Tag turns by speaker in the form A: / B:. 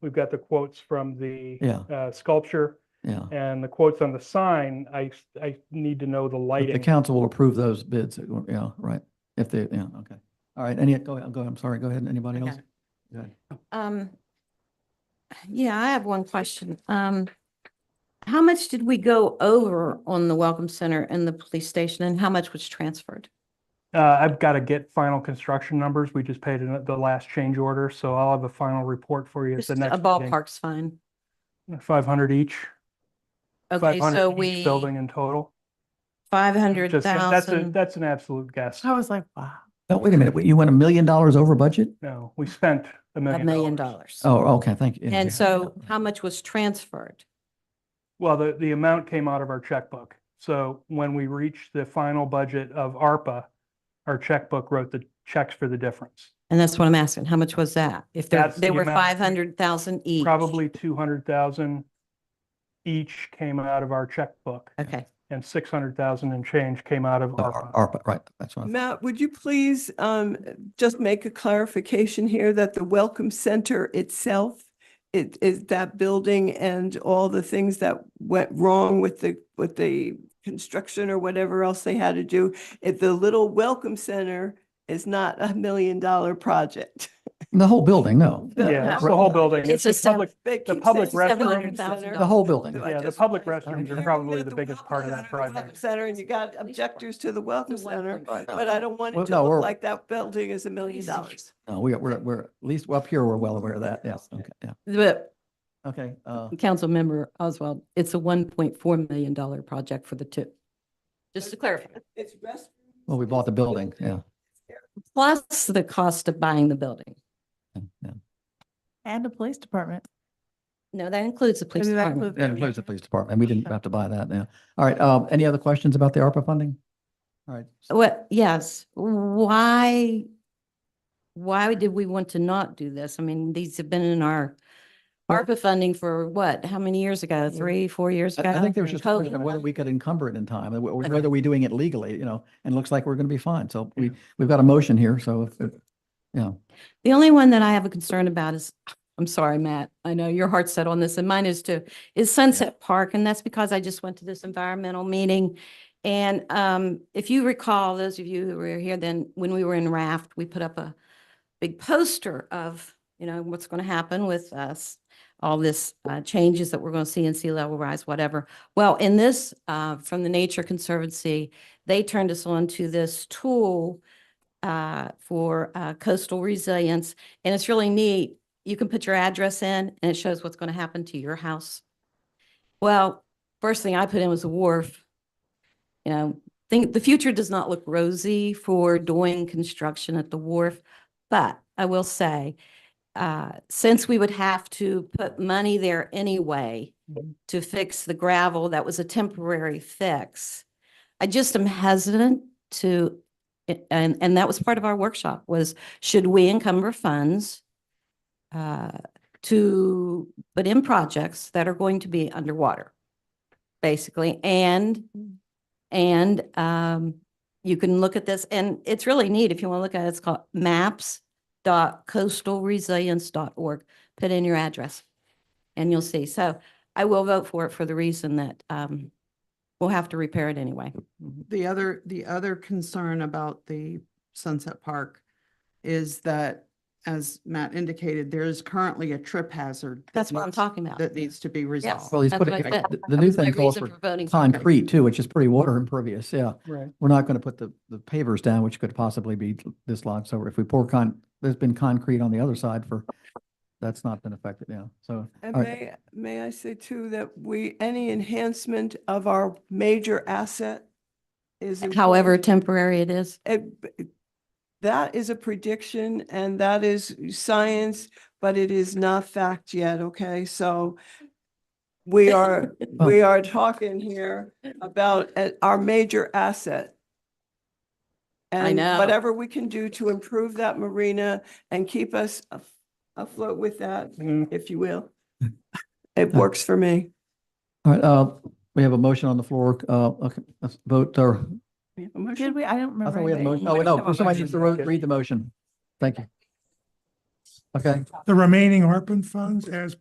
A: We've got the quotes from the
B: Yeah,
A: uh, sculpture
B: yeah.
A: and the quotes on the sign. I, s- I need to know the
B: But The
A: lighting.
B: council will approve those bids, uh, yeah, right, if they, yeah, okay. All right, any, go ahead, go, ahead, I'm sorry, go ahead, anybody
C: I got
B: else?
C: it.
B: Go ahead.
C: Um, yeah, I have one question. Um, how much did we go over on the Welcome Center and the police station and how much was transferred?
A: Uh, I've got to get final construction numbers. We just paid an- the last change order, so I'll have a final report for you. at
C: Just
A: the
C: a
A: next
C: ballpark's fine.
A: Five hundred each, five
C: Okay, so
A: hundred
C: we,
A: each building in total.
C: five hundred
A: Just, that- that's a,
C: thousand.
A: that's an absolute guess.
D: I was like, wow.
B: Oh, wait a minute, wait, you went a million dollars over budget?
A: No, we spent a
C: A
A: million.
C: million dollars.
B: Oh, okay, thank you. Yeah, yeah.
C: And so how much was transferred?
A: Well, the, the amount came out of our checkbook. So when we reached the final budget of ARPA, our checkbook wrote the checks for the difference.
C: And that's what I'm asking. How much was that? If there,
A: That's
C: they
A: the
C: were
A: amount we-
C: five hundred thousand each.
A: Probably two hundred thousand each came out of our checkbook
C: Okay,
A: and six hundred thousand and change came out of
B: Uh,
A: ARPA.
B: Ar- ARPA, right, that's what, I thought.
D: Matt, would you please um, just make a clarification here that the Welcome Center itself, it is that building and all the things that went wrong with the, with the construction or whatever else they had to do, if the little Welcome Center is not a million dollar project.
B: the whole building, no.
D: Yeah.
A: Yeah, it's the whole building.
C: It's
A: the
C: a sev-
A: public-
D: They
A: The
D: keep
A: public
D: saying it's a
A: restrooms-
D: Welcome Center.
B: The whole building.
D: Do I
A: Yeah, the
D: just-
A: public
D: I-
A: restrooms are
D: You're
A: probably
D: at
A: the biggest
D: Welcome
A: part of
D: Center,
A: that
D: the Welcome
A: project.
D: Center and you got objectors to the Welcome Center, but I don't want
B: Well,
D: it
B: no,
D: to
B: we're-
D: look like that building is a million dollars.
B: No, we, are- we're, we're, at least up here, we're well aware of that, yes, okay, yeah,
C: but
B: okay, uh,
C: Councilmember Oswald, it's a one point four million dollar project for the two. Just to clarify.
D: It's restrooms.
B: well, we bought the building, yeah,
C: plus the cost of buying the building.
B: yeah, yeah.
E: And a police department.
C: No, that includes the police
E: Maybe that includes-
C: department.
B: That includes the police department, we didn't have to buy that, yeah. All right, um, any other questions about the ARPA funding? All right,
C: Well, yes, why, why did we want to not do this? I mean, these have been in our
B: Well-
C: ARPA funding for what, how many years ago? Three, four years ago?
B: I, I think there was just a question
C: COVID.
B: of whether we could encumber it in time, and wh-
C: Okay.
B: whether we're doing it legally, you know, and it looks like we're going to be fine. So we, we've got a motion here, so, if- if- yeah.
C: The only one that I have a concern about is, I'm sorry, Matt, I know your heart's set on this and mine is too, is Sunset Park. And that's because I just went to this environmental meeting. And um, if you recall, those of you who were here then, when we were in Raft, we put up a big poster of, you know, what's going to happen with us, all this uh, changes that we're going to see in sea level rise, whatever. Well, in this, uh, from the Nature Conservancy, they turned us on to this tool uh, for uh, coastal resilience, and it's really neat. You can put your address in, and it shows what's going to happen to your house. Well, first thing I put in was the wharf. You know, think, the future does not look rosy for doing construction at the wharf, but I will say, uh, since we would have to put money there anyway to fix the gravel, that was a temporary fix. I just am hesitant to it- and, and that was part of our workshop was, should we encumber funds uh, to, but in projects that are going to be underwater, basically, and, and um, you can look at this, and it's really neat if you want to look at it, it's called maps dot coastalresilience.org. Put in your address and you'll see. So I will vote for it for the reason that um, we'll have to repair it anyway.
F: The other, the other concern about the Sunset Park is that, as Matt indicated, there is currently a trip hazard. that
C: That's what I'm
F: needs-
C: talking about.
F: That needs to be resolved.
B: Well, he's
C: That's
B: put,
C: what I
B: it-
C: said.
B: the- the new
C: That's my
B: thing calls
C: reason
B: for
C: voting for it.
B: concrete too, which is pretty water impervious, yeah.
A: Right.
B: We're not going to put the, the pavers down, which could possibly be dislodged. So if we pour con, there's been concrete on the other side for, that's not been affected, yeah. So, all
D: And
B: right,
D: may, may I say too, that we, any enhancement of our major asset is.
C: However
D: important.
C: temporary it is.
D: It- Eh, b- That is a prediction and that is science, but it is not fact yet, okay? So we are, we are talking here about uh, our major asset.
C: I
D: and
C: know.
D: Whatever we can do to improve that marina and keep us af- afloat with that,
C: Mm-hmm.
A: Mm,
D: if you will. It works for me.
B: all right, uh, we have a motion on the floor, uh, okay, let's vote, or,
D: We have a motion?
E: Did we? I don't remember.
B: I thought we had a
E: anything.
B: motion, oh,
E: We
B: no,
E: have a
B: somebody
E: motion.
B: needs to ro- read the motion. Thank you. Okay.
G: the remaining ARPA funds as